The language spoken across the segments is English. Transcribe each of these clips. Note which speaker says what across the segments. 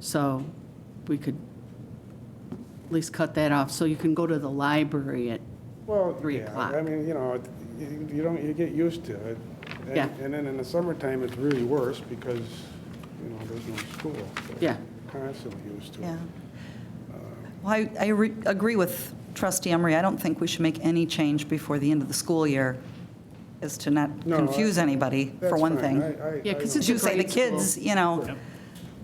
Speaker 1: So we could at least cut that off, so you can go to the library at,
Speaker 2: Well,
Speaker 1: three
Speaker 2: yeah,
Speaker 1: o'clock.
Speaker 2: I mean, you know, it- you you don't, you get used to it. And-
Speaker 1: Yeah.
Speaker 2: And then in the summertime, it's really worse because, you know, there's no school. so
Speaker 1: Yeah.
Speaker 2: Constantly used to it.
Speaker 3: Yeah. Well, I, I re- agree with trustee Emery. I don't think we should make any change before the end of the school year as to not
Speaker 2: No, I-
Speaker 3: confuse anybody, for
Speaker 2: That's
Speaker 3: one
Speaker 2: fine.
Speaker 3: thing.
Speaker 2: I- I-
Speaker 1: Yeah,
Speaker 2: I
Speaker 1: 'cause
Speaker 2: don't-
Speaker 1: it's a
Speaker 3: To say the
Speaker 1: grade school.
Speaker 3: kids, you know,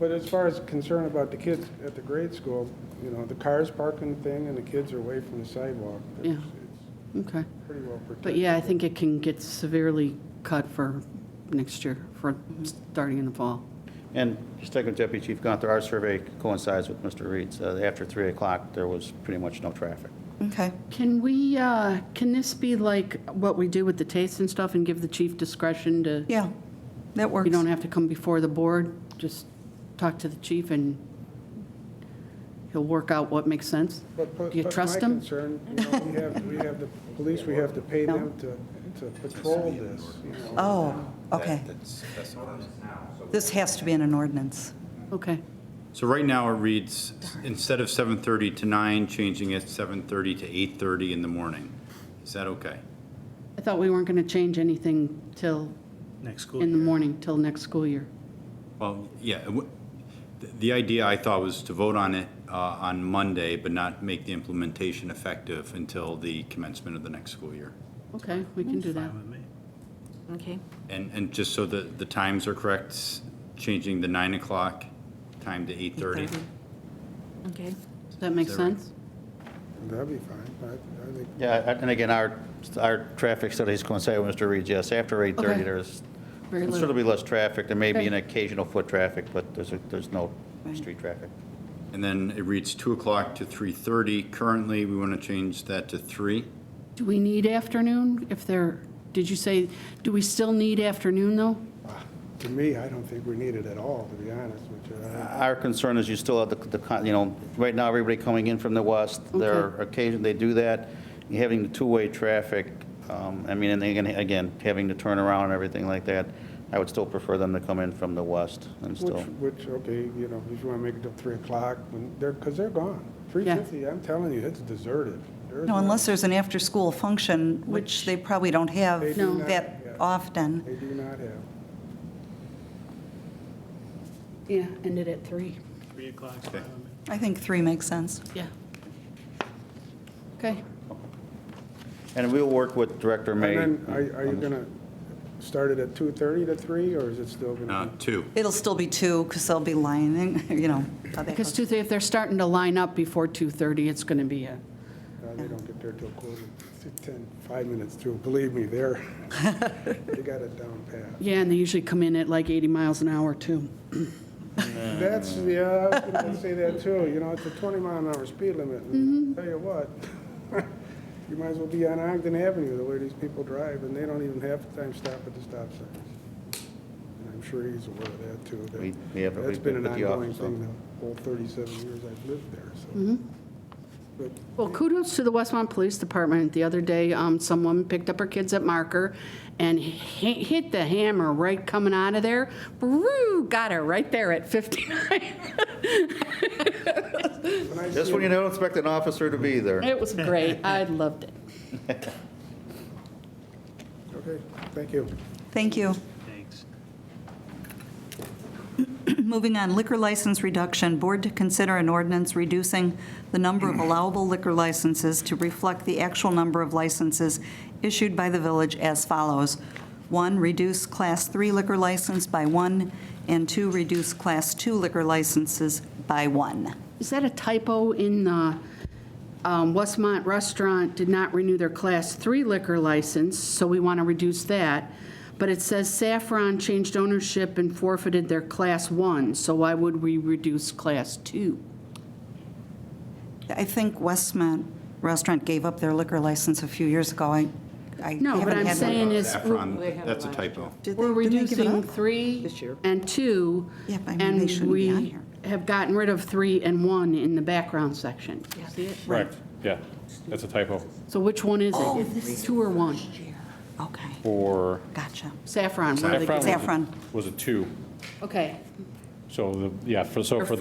Speaker 2: But as far as concern about the kids at the grade school, you know, the cars parking thing and the kids are away from the sidewalk.
Speaker 1: Yeah.
Speaker 2: It's- it's
Speaker 1: okay.
Speaker 2: Pretty well protected.
Speaker 1: But yeah, I think it can get severely cut for next year, for starting in the fall.
Speaker 4: And just taking Deputy Chief Gunther, our survey coincides with Mr. Reed's. Uh, After 3 o'clock, there was pretty much no traffic.
Speaker 3: okay.
Speaker 1: Can we, uh, can this be like what we do with the taste and stuff and give the chief discretion to?
Speaker 3: Yeah, that works.
Speaker 1: You don't have to come before the board, just talk to the chief and he'll work out what makes sense?
Speaker 2: But- but-
Speaker 1: Do you
Speaker 2: but
Speaker 1: trust
Speaker 2: My
Speaker 1: him?
Speaker 2: concern, you know, we have, we have the police, we have to pay them to, to patrol this, you know.
Speaker 3: Oh, okay. This has to be in an ordinance.
Speaker 1: Okay,
Speaker 5: So right now it reads, instead of 7:30 to 9, changing it 7:30 to 8:30 in the morning. Is that okay?
Speaker 1: I thought we weren't going to change anything till,
Speaker 6: Next school
Speaker 1: in the
Speaker 6: year.
Speaker 1: morning, till next school year.
Speaker 5: Well, yeah, it w- the- the idea I thought was to vote on it uh, on Monday, but not make the implementation effective until the commencement of the next school year.
Speaker 1: Okay, we can do that.
Speaker 6: Fine with me.
Speaker 7: Okay.
Speaker 5: And, and just so that the times are correct, s- changing the 9 o'clock time to 8:30.
Speaker 7: Okay.
Speaker 1: Does that make
Speaker 5: Is that right?
Speaker 1: sense?
Speaker 2: That'd be fine, I, I think
Speaker 4: Yeah, I- and again, our, our traffic studies coincide with Mr. Reed's, yes. After 8:30,
Speaker 1: Okay.
Speaker 4: there's
Speaker 1: Very little.
Speaker 4: considerably less traffic. There may be an
Speaker 1: Okay.
Speaker 4: occasional foot traffic, but there's, a- there's no street traffic.
Speaker 5: And then it reads 2 o'clock to 3:30. Currently, we want to change that to 3.
Speaker 1: Do we need afternoon if they're, did you say, do we still need afternoon, though?
Speaker 2: To me, I don't think we need it at all, to be honest with you. I-
Speaker 4: Our concern is you still have the- the, con- you know, right now, everybody coming in from the west, there are occasion, they do that, You're having the two-way traffic, um, I mean, and again, again, having to turn around and everything like that, I would still prefer them to come in from the west and still.
Speaker 2: Which, which, okay, you know, if you want to make it till 3 o'clock, when they're, because they're gone. 3:50, I'm telling you, it's deserted. There's
Speaker 3: No, unless there's an after-school function,
Speaker 1: Which-
Speaker 3: which they probably don't have
Speaker 2: They do
Speaker 1: not,
Speaker 3: that
Speaker 2: yeah.
Speaker 3: often.
Speaker 2: They do not have.
Speaker 1: Yeah, ended at three.
Speaker 6: Three o'clock.
Speaker 5: Okay.
Speaker 3: I think three makes sense.
Speaker 1: Yeah. Okay,
Speaker 4: And we'll work with Director
Speaker 2: And
Speaker 4: May.
Speaker 2: then, are are you
Speaker 4: on this.
Speaker 2: going to start it at 2:30 to 3, or is it still going
Speaker 5: Uh,
Speaker 2: to be?
Speaker 5: 2.
Speaker 3: It'll still be two, because they'll be lining, you know. how that
Speaker 1: because
Speaker 3: goes.
Speaker 1: Tuesday, if they're starting to line up before 2:30, it's going to be a,
Speaker 2: No, uh, They don't get there till quarter, to 10, five minutes through. Believe me, they're, they got it down pat.
Speaker 1: yeah, and they usually come in at like 80 miles an hour, too.
Speaker 2: That's,
Speaker 4: Mm.
Speaker 2: yeah, I was going to say that too, you know, it's a 20 mile an hour speed limit. and Tell you what, you might as well be on Ogden Avenue, the way these people drive, and they don't even half the time stop at the stop signs. And I'm sure he's aware of that too. that-
Speaker 4: We- we have-
Speaker 2: That's
Speaker 4: we-
Speaker 2: been an
Speaker 4: with the
Speaker 2: ongoing
Speaker 4: office,
Speaker 2: thing
Speaker 4: so.
Speaker 2: the whole 37 years I've lived there, so. But
Speaker 1: Well, kudos to the Westmont Police Department. The other day, um, someone picked up her kids at Marker and hi- hit the hammer right coming out of there. Woo, got her right there at 59.
Speaker 2: when I
Speaker 4: Just
Speaker 2: see
Speaker 4: when you
Speaker 2: him-
Speaker 4: don't expect an officer to be there.
Speaker 1: It was great. I loved it.
Speaker 2: Okay, thank you.
Speaker 3: Thank you.
Speaker 6: Thanks.
Speaker 3: Moving on, liquor license reduction, board to consider an ordinance reducing the number of allowable liquor licenses to reflect the actual number of licenses issued by the village as follows. One, reduce Class 3 liquor license by one, and two, reduce Class 2 liquor licenses by one.
Speaker 1: Is that a typo in the um, Westmont Restaurant did not renew their Class 3 liquor license, so we want to reduce that. But it says Saffron changed ownership and forfeited their Class 1, so why would we reduce Class 2?
Speaker 3: I think Westmont Restaurant gave up their liquor license a few years ago. I I haven't had
Speaker 1: No,
Speaker 3: one.
Speaker 1: but I'm saying is,
Speaker 5: Saffron, that's a typo.
Speaker 3: Did they-
Speaker 1: we're
Speaker 3: did they give it
Speaker 1: reducing
Speaker 3: up?
Speaker 1: 3 and 2,
Speaker 3: Yeah, but I mean, they
Speaker 1: and
Speaker 3: shouldn't be on
Speaker 1: we
Speaker 3: here.
Speaker 1: have gotten rid of 3 and 1 in the background section. See it?
Speaker 8: Correct, yeah, that's a typo.
Speaker 1: So which one is
Speaker 3: Oh,
Speaker 1: it? 2 or 1?
Speaker 3: Okay,
Speaker 8: For
Speaker 3: gotcha.
Speaker 1: Saffron. one of the-
Speaker 8: Saffron
Speaker 3: Saffron.
Speaker 8: was a two,
Speaker 1: Okay,
Speaker 8: so, the yeah, for, so
Speaker 1: Or
Speaker 8: for